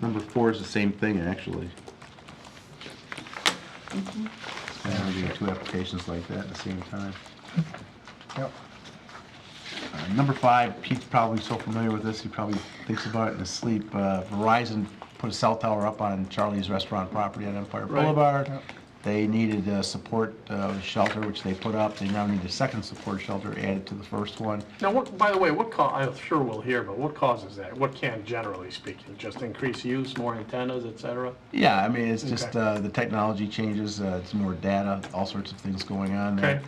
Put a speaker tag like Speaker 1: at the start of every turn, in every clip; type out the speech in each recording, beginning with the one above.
Speaker 1: Number four is the same thing, actually. It's kind of doing two applications like that at the same time.
Speaker 2: Yep.
Speaker 1: Uh, Number five, Pete's probably so familiar with this, he probably thinks about it in his sleep. Uh, Verizon put a cell tower up on Charlie's Restaurant property on Empire
Speaker 3: Right.
Speaker 1: Boulevard.
Speaker 2: Yep.
Speaker 1: They needed a support uh, shelter, which they put up. They now need a second support shelter added to the first one.
Speaker 3: Now, what, by the way, what ca, I'm sure we'll hear, but what causes that? What can, generally speaking, just increase use, more antennas, et cetera?
Speaker 1: Yeah, I mean, it's just,
Speaker 3: Okay.
Speaker 1: uh, the technology changes, uh, it's more data, all sorts of things going on there.
Speaker 3: Okay.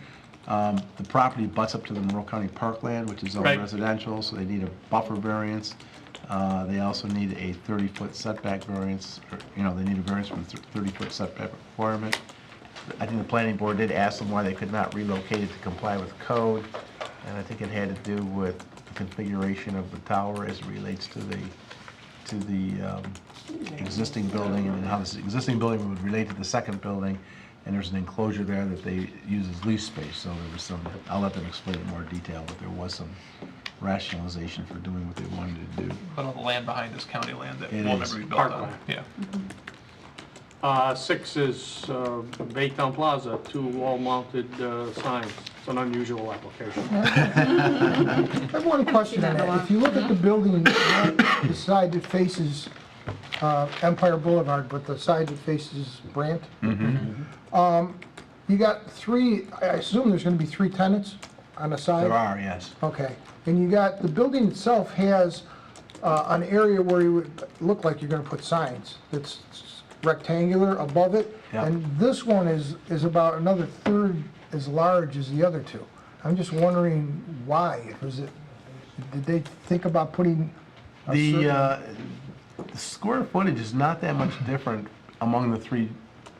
Speaker 1: Um, the property butts up to the Monroe County Parkland, which is all
Speaker 3: Right.
Speaker 1: residential, so they need a buffer variance. Uh, they also need a thirty-foot setback variance, or, you know, they need a variance from the thirty-foot setback requirement. I think the planning board did ask them why they could not relocate it to comply with code, and I think it had to do with the configuration of the tower as it relates to the, to the um, existing building, and how this existing building would relate to the second building, and there's an enclosure there that they use as lease space, so there was some, I'll let them explain in more detail, but there was some rationalization for doing what they wanted to do.
Speaker 4: But all the land behind is county land that
Speaker 1: It
Speaker 4: will
Speaker 1: is.
Speaker 4: never be built on.
Speaker 3: Parkland.
Speaker 4: Yeah.
Speaker 3: Uh, six is, uh, Baytown Plaza, two wall-mounted, uh, signs. It's an unusual
Speaker 1: Mm-hmm.
Speaker 3: application.
Speaker 2: I have one question on that. If you look at the building, not the side that faces uh, Empire Boulevard, but the side that faces Brandt,
Speaker 1: Mm-hmm.
Speaker 2: um, you got three, I assume there's going to be three tenants on the side?
Speaker 1: There are, yes.
Speaker 2: Okay, and you got, the building itself has uh, an area where you would look like you're gonna put signs. It's rectangular above it,
Speaker 1: Yeah.
Speaker 2: and this one is, is about another third as large as the other two. I'm just wondering why, was it, did they think about putting a
Speaker 1: The,
Speaker 2: certain-
Speaker 1: uh, the square footage is not that much different among the three
Speaker 2: Hmm.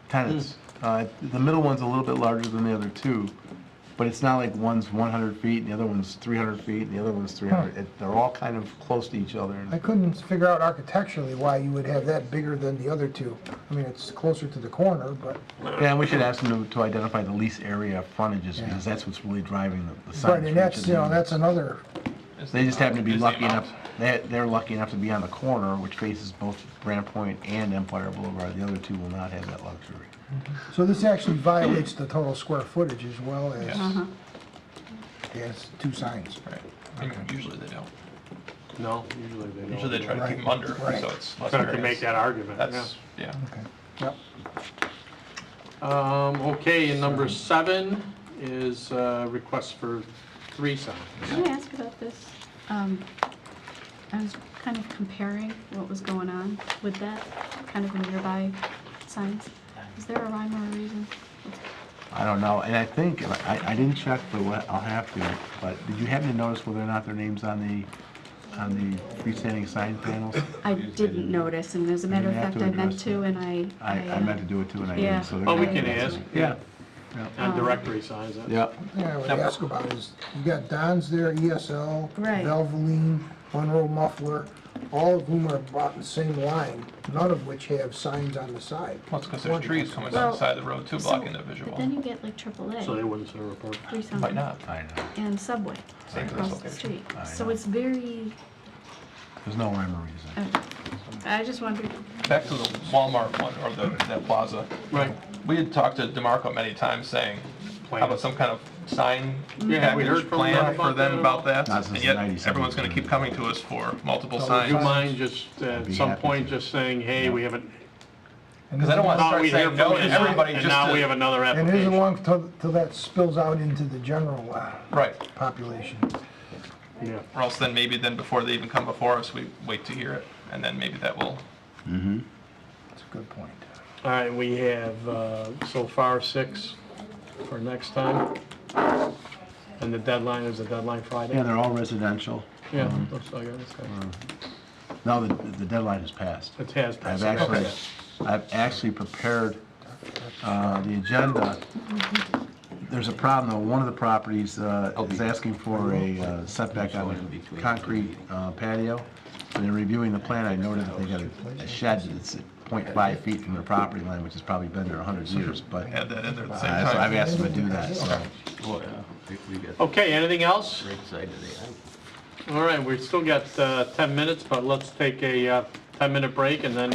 Speaker 1: tenants. Uh, the middle one's a little bit larger than the other two, but it's not like one's one hundred feet and the other one's three hundred feet and the other one's three hundred. They're all kind of close to each other.
Speaker 2: I couldn't figure out architecturally why you would have that bigger than the other two. I mean, it's closer to the corner, but,
Speaker 1: Yeah, and we should ask them to, to identify the least area frontages because that's what's really driving the, the size.
Speaker 2: right, and that's, you know, that's another,
Speaker 1: They just happen to be
Speaker 4: Is the
Speaker 1: lucky enough,
Speaker 4: amount.
Speaker 1: they, they're lucky enough to be on the corner, which faces both Grand Point and Empire Boulevard. The other two will not have that luxury.
Speaker 2: so this actually violates the total square footage as well as.
Speaker 4: Yeah.
Speaker 5: Uh-huh.
Speaker 2: Yes, two signs.
Speaker 4: Right. I mean, Usually they don't.
Speaker 3: No, usually they don't.
Speaker 4: Usually they try to keep them
Speaker 2: Right.
Speaker 4: under,
Speaker 2: Right.
Speaker 4: so it's less
Speaker 3: Try to make
Speaker 4: variance.
Speaker 3: that argument, yeah.
Speaker 4: That's, yeah.
Speaker 2: Okay. Yep.
Speaker 3: Um, okay, and number seven is, uh, request for three signs.
Speaker 5: Can I ask about this? Um, I was kind of comparing what was going on with that, kind of in nearby signs. Is there a rhyme or a reason?
Speaker 1: I don't know, and I think, I, I didn't check, but what- I'll have to, but did you happen to notice whether or not their name's on the, on the freestanding sign panels?
Speaker 5: I didn't notice, and as a matter of
Speaker 1: have to
Speaker 5: fact, I meant
Speaker 1: address
Speaker 5: to,
Speaker 1: that.
Speaker 5: and I. uh,
Speaker 1: I, I meant to do it too, and I didn't, so. they're
Speaker 3: Oh, we
Speaker 1: gonna-
Speaker 3: can ask.
Speaker 1: Yeah,
Speaker 3: And directory signs,
Speaker 1: Oh. yeah.
Speaker 3: that's,
Speaker 2: Yeah, I would ask about is, you got Don's there, ESL,
Speaker 5: Right.
Speaker 2: Valvoline, Monroe Muffler, all of whom are bought in the same line, none of which have signs on the side.
Speaker 4: Well, it's because there's trees coming down
Speaker 5: Well,
Speaker 4: the side of the road too,
Speaker 5: So-
Speaker 4: blocking the visual.
Speaker 5: But then you get like AAA,
Speaker 3: so they wouldn't serve a purpose.
Speaker 5: three signs.
Speaker 4: Might not.
Speaker 1: I know,
Speaker 5: And Subway
Speaker 4: Same for this
Speaker 5: across the
Speaker 4: location.
Speaker 5: street.
Speaker 1: I
Speaker 5: So
Speaker 1: know.
Speaker 5: it's very,
Speaker 1: there's no rhyme or reason.
Speaker 5: uh, I just wondered,
Speaker 4: Back to the Walmart one, or the, that plaza.
Speaker 3: Right.
Speaker 4: We had talked to DeMarco many times saying,
Speaker 3: Plan.
Speaker 4: how about some kind of sign
Speaker 3: Yeah, we heard
Speaker 4: package
Speaker 3: from
Speaker 4: plan
Speaker 3: them
Speaker 4: for
Speaker 3: about that
Speaker 4: them
Speaker 3: at all.
Speaker 4: about that?
Speaker 1: Not since
Speaker 4: And
Speaker 1: the
Speaker 4: yet,
Speaker 1: 90s.
Speaker 4: everyone's gonna keep coming to us for multiple
Speaker 3: Would you
Speaker 4: signs.
Speaker 3: mind just, uh, at
Speaker 1: be
Speaker 3: some
Speaker 1: happy
Speaker 3: point,
Speaker 1: to.
Speaker 3: just saying, hey, we haven't,
Speaker 4: Because I don't want to
Speaker 3: thought
Speaker 4: start
Speaker 3: we hear
Speaker 4: saying
Speaker 3: from
Speaker 4: no
Speaker 3: you,
Speaker 4: to
Speaker 3: and now-
Speaker 4: everybody
Speaker 3: and
Speaker 4: just
Speaker 3: now we have
Speaker 4: to,
Speaker 3: another
Speaker 2: And it isn't
Speaker 3: application.
Speaker 2: long till, till that spills out into the general uh,
Speaker 4: right.
Speaker 2: population.
Speaker 3: Yeah.
Speaker 4: Or else then maybe then before they even come before us, we wait to hear it, and then maybe that will,
Speaker 2: That's a good point.
Speaker 3: All right, we have uh, so far six for next time. And the deadline is the deadline
Speaker 1: Yeah,
Speaker 3: Friday?
Speaker 1: they're all residential.
Speaker 3: Yeah, looks like it, okay.
Speaker 1: Now, the, the deadline has passed.
Speaker 3: It has passed.
Speaker 1: I've actually,
Speaker 3: Okay.
Speaker 1: I've actually prepared uh, the agenda. There's a problem, though, one of the properties uh, is asking for a uh, setback on a concrete uh, patio. When they're reviewing the plan, I noted that they got a- a shed that's at .5 feet from their property line, which has probably been there 100 years, but uh,
Speaker 4: add that in there at the
Speaker 1: so
Speaker 4: same
Speaker 1: I've
Speaker 4: time.
Speaker 1: asked them to do that, so.
Speaker 3: Okay, anything else? All right, we've still got uh, 10 minutes, but let's take a 10-minute uh, break and then